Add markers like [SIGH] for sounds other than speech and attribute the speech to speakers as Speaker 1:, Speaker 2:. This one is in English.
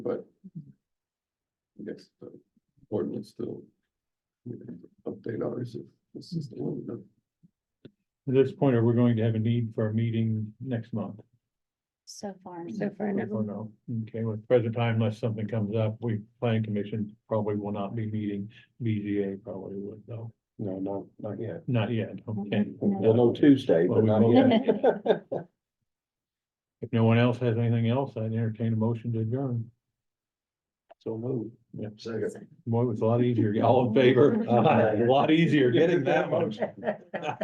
Speaker 1: next uh, ordinance to you know, update ours if this is the one that.
Speaker 2: At this point, are we going to have a need for a meeting next month?
Speaker 3: So far.
Speaker 4: So far,
Speaker 2: I
Speaker 4: no.
Speaker 2: don't know. Okay, with present time, unless something comes up, we, planning commission probably will not be meeting, BZA probably would though,
Speaker 5: No, no, not yet.
Speaker 2: not yet, okay.
Speaker 5: We'll know Tuesday, but
Speaker 2: Well,
Speaker 5: not
Speaker 2: we
Speaker 5: yet.
Speaker 2: If no one else has anything else, I'd entertain a motion to adjourn.
Speaker 5: So move.
Speaker 2: Yep.
Speaker 5: Second. [LAUGHS]
Speaker 2: Boy, it was a lot easier, all in favor,
Speaker 5: Aye.
Speaker 2: a lot easier getting that one.